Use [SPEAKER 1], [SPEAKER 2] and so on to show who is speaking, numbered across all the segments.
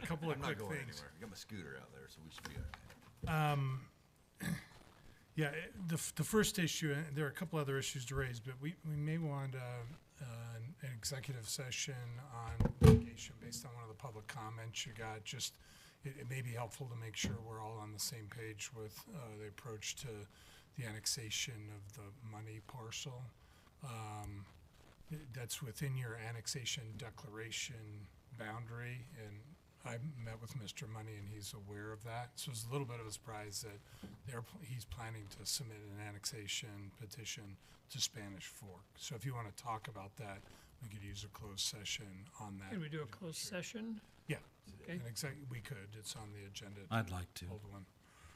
[SPEAKER 1] couple of
[SPEAKER 2] I'm not
[SPEAKER 1] quick
[SPEAKER 2] going
[SPEAKER 1] things.
[SPEAKER 2] anywhere. I got my scooter out there, so we should be all right.
[SPEAKER 1] Yeah, eh, the, f- the first issue, and there are a couple other issues to raise, but we, we may want uh, uh, an an executive session on litigation based on one of the public comments you got, just, it, it may be helpful to make sure we're all on the same page with uh, the approach to the annexation of the money parcel. Um, th- That's within your annexation declaration boundary, and I met with Mr. Money, and he's aware of that. So it's a little bit of a surprise that they're, pl- he's planning to submit an annexation petition to Spanish Fork. So if you want to talk about that, we could use a closed session on that.
[SPEAKER 3] Can we do a closed session?
[SPEAKER 1] Yeah,
[SPEAKER 3] Okay.
[SPEAKER 1] and exactly, we could, it's on the agenda. to
[SPEAKER 4] I'd like to.
[SPEAKER 1] Hold one.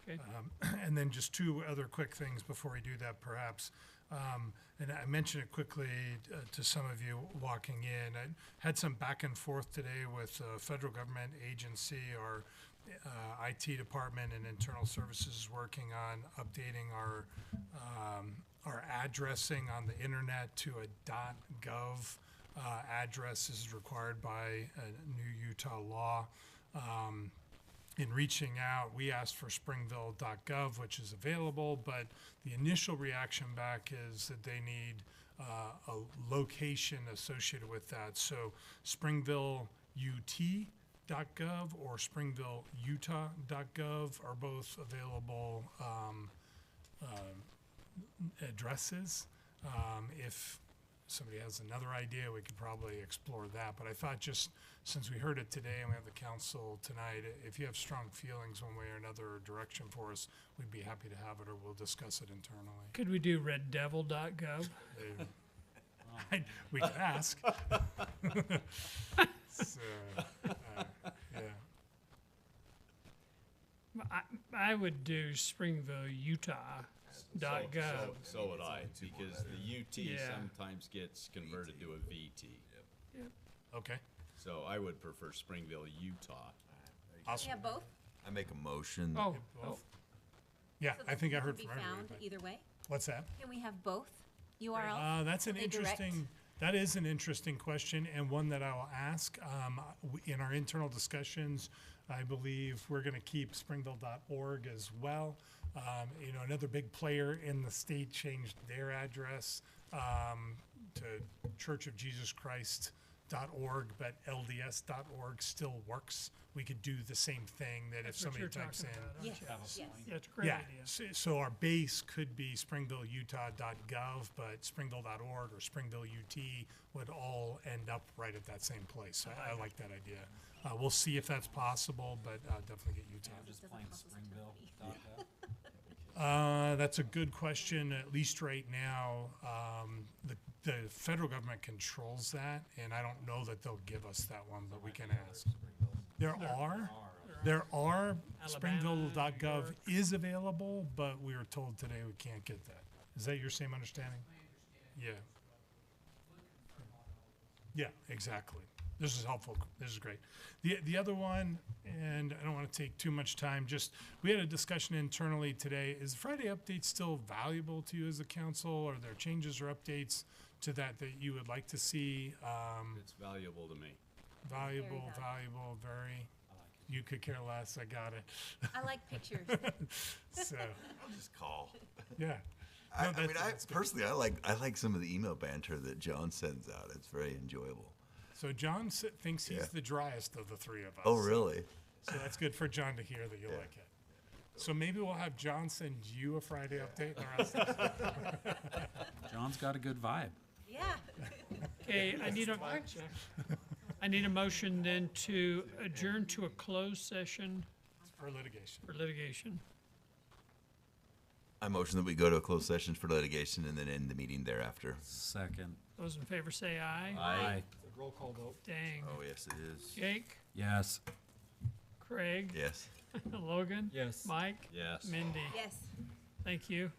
[SPEAKER 1] Um,
[SPEAKER 3] Okay.
[SPEAKER 1] And then just two other quick things before we do that, perhaps. Um, And I mentioned it quickly uh, to some of you walking in. I had some back and forth today with a federal government agency, our uh, IT department and internal services is working on updating our, um, our addressing on the internet to a .gov uh, address is required by uh, new Utah law. Um, in reaching out, we asked for springville.gov, which is available, but the initial reaction back is that they need uh, a location associated with that. So springvilleut.gov or springvilleutah.gov are both available um, um, addresses. Um, If somebody has another idea, we could probably explore that. But I thought just, since we heard it today and we have the council tonight, i- if you have strong feelings one way or another or direction for us, we'd be happy to have it or we'll discuss it internally.
[SPEAKER 3] Could we do reddevil.gov?
[SPEAKER 1] They- I- We could ask. So, uh, yeah.
[SPEAKER 3] I, I would do springvilleutah.gov.
[SPEAKER 5] So- So would I, because the UT
[SPEAKER 3] Yeah.
[SPEAKER 5] sometimes gets converted to a VT.
[SPEAKER 1] Okay,
[SPEAKER 5] So I would prefer Springville, Utah.
[SPEAKER 6] Yeah,
[SPEAKER 1] awesome.
[SPEAKER 6] both.
[SPEAKER 2] I make a motion.
[SPEAKER 3] Oh, oh,
[SPEAKER 1] Both. Yeah,
[SPEAKER 6] so
[SPEAKER 1] I think I
[SPEAKER 6] that
[SPEAKER 1] heard
[SPEAKER 6] can
[SPEAKER 1] from
[SPEAKER 6] Be found
[SPEAKER 1] everybody.
[SPEAKER 6] either way.
[SPEAKER 1] What's that?
[SPEAKER 6] Can we have both URLs?
[SPEAKER 1] Uh, that's an
[SPEAKER 6] They direct?
[SPEAKER 1] interesting, that is an interesting question and one that I will ask. Um, w- in our internal discussions, I believe we're gonna keep springville.org as well. Um, you know, another big player in the state changed their address, um, to Church of Jesus Christ .org, but LDS.org still works. We could do the same thing that if
[SPEAKER 3] that's what
[SPEAKER 1] somebody
[SPEAKER 3] you're
[SPEAKER 1] types
[SPEAKER 3] talking
[SPEAKER 1] in.
[SPEAKER 3] about. aren't
[SPEAKER 6] Yes,
[SPEAKER 3] you?
[SPEAKER 6] yes.
[SPEAKER 3] Yeah, it's a great idea.
[SPEAKER 1] So, so our base could be springvilleutah.gov, but springville.org or springvilleut would all end up right at that same place. So I, I like that idea. Uh, we'll see if that's possible, but uh, definitely get Utah.
[SPEAKER 4] Just
[SPEAKER 6] doesn't
[SPEAKER 4] plain
[SPEAKER 6] cost us too
[SPEAKER 4] Springville.
[SPEAKER 6] many.
[SPEAKER 4] DACA.
[SPEAKER 1] Uh, that's a good question. At least right now, um, the, the federal government controls that, and I don't know that they'll give us that one, but we can ask. There are, there are, springville.gov is available, but we were told today we can't get that. Is that your same understanding? Yeah. Yeah, exactly. This is helpful. This is great. The, the other one, and I don't want to take too much time, just, we had a discussion internally today. Is Friday update still valuable to you as a council? Are there changes or updates to that that you would like to see? Um,
[SPEAKER 5] It's valuable to me.
[SPEAKER 1] valuable,
[SPEAKER 6] valuable.
[SPEAKER 1] valuable, very, you could care less. I got it.
[SPEAKER 6] I like pictures.
[SPEAKER 1] So,
[SPEAKER 2] I'll just call.
[SPEAKER 1] yeah.
[SPEAKER 2] I,
[SPEAKER 1] No,
[SPEAKER 2] I mean,
[SPEAKER 1] that's-
[SPEAKER 2] I
[SPEAKER 1] that's good.
[SPEAKER 2] personally, I like I like some of the email banter that John sends out. It's very enjoyable.
[SPEAKER 1] So John s- thinks
[SPEAKER 2] Yeah.
[SPEAKER 1] he's the driest of the three of us.
[SPEAKER 2] Oh, really?
[SPEAKER 1] So that's good for John to hear that you like it. So maybe we'll have John send you a Friday update. and the rest of us-
[SPEAKER 4] John's got a good vibe.
[SPEAKER 6] Yeah.
[SPEAKER 3] Okay, I need a, I need a motion then to adjourn to a closed session
[SPEAKER 1] for litigation.
[SPEAKER 3] for litigation.
[SPEAKER 2] I motion that we go to a closed session for litigation and then end the meeting thereafter.
[SPEAKER 4] Second.
[SPEAKER 3] Those in favor say aye.
[SPEAKER 4] Aye.
[SPEAKER 3] Dang.
[SPEAKER 2] Oh, yes, it is.
[SPEAKER 3] Jake,
[SPEAKER 4] Yes.
[SPEAKER 3] Craig,
[SPEAKER 2] Yes.
[SPEAKER 3] Logan.
[SPEAKER 4] Yes.
[SPEAKER 3] Mike,
[SPEAKER 5] Yes.
[SPEAKER 3] Mindy.
[SPEAKER 6] Yes.
[SPEAKER 3] Thank you.